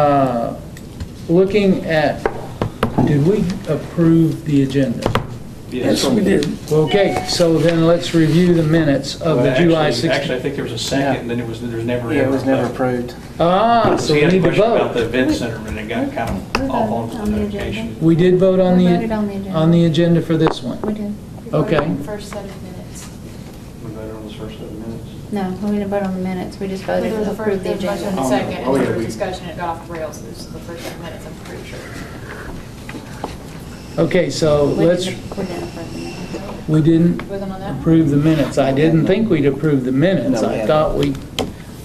Uh, Looking at, did we approve the agenda? Yes, we did. Okay, so then let's review the minutes of the Well, July actually- 16th. Actually, I think there was a second, and then it was, there was never. Yeah, it was never ever a vote. approved. Ah, so We we had a need to question about the vote. event center, and it got kind We're of voting off on on the the notification. We did vote on We the. voted on the agenda. on the agenda for this one. We did. Okay. Voting First set of minutes. Uh, We voted on the first set of minutes. No, we didn't vote on the minutes, we just voted There was to a first, approve the there was a motion and agenda. a Oh, second, oh, and yeah, there was we- discussion, it got off the rails, this is the first set of minutes, I'm pretty sure. Okay, so We let's, didn't- We didn't approve the minutes. we didn't Wasn't on that? approve the minutes. I didn't think we'd approve the minutes. No, we I hadn't. thought we,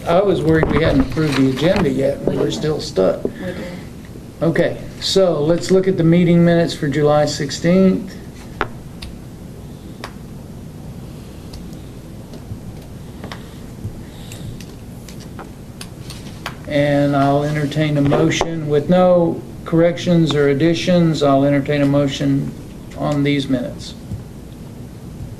I was worried we hadn't approved the agenda yet, and We we're didn't. still stuck. We did. Okay, so let's look at the meeting minutes for July 16th. And I'll entertain a motion with no corrections or additions. I'll entertain a motion on these minutes.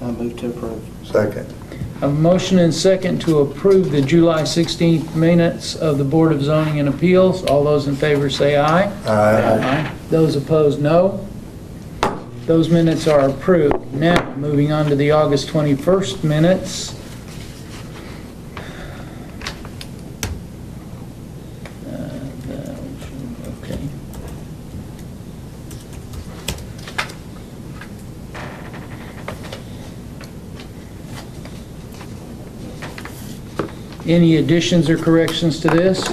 I moved to approve. Second. A motion and second to approve the July 16th minutes of the Board of Zoning and Appeals. All those in favor say aye. Aye. Those opposed, no. Those minutes are approved. Now, moving on to the August 21st minutes. Uh, that one, Okay. Any additions or corrections to this?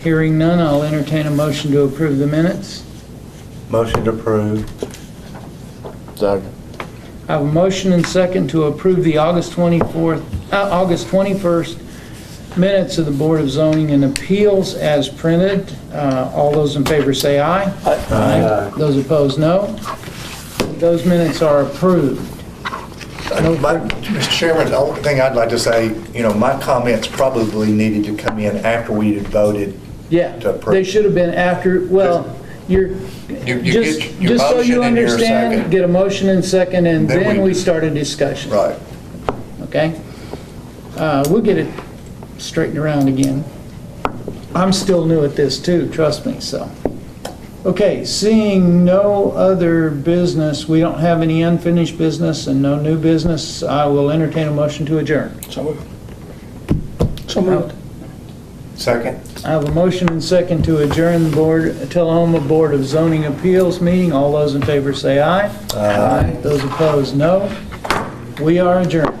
Hearing none, I'll entertain a motion to approve the minutes. Motion to approve. Second. I have a motion and second to approve the August 24th, uh, August 21st minutes of the Board of Zoning and Appeals as printed. Uh, All those in favor say aye. Aye. Those opposed, no. Those minutes are approved. My- Mr. Chairman, the only thing I'd like to say, you know, my comments probably needed to come in after we had voted. Yeah, To approve. they should have been after, well, you're, You- you just, get your just so you motion and your understand, second. get a motion and second, and Then then we- we start a discussion. Right. okay? Uh, We'll get it straightened around again. I'm still new at this too, trust me, so. Okay, seeing no other business, we don't have any unfinished business and no new business, I will entertain a motion to adjourn. So moved. So moved. Second. I have a motion and second to adjourn the Board, Tullahoma Board of Zoning Appeals meeting. All those in favor say aye. Aye. Those opposed, no. We are adjourned.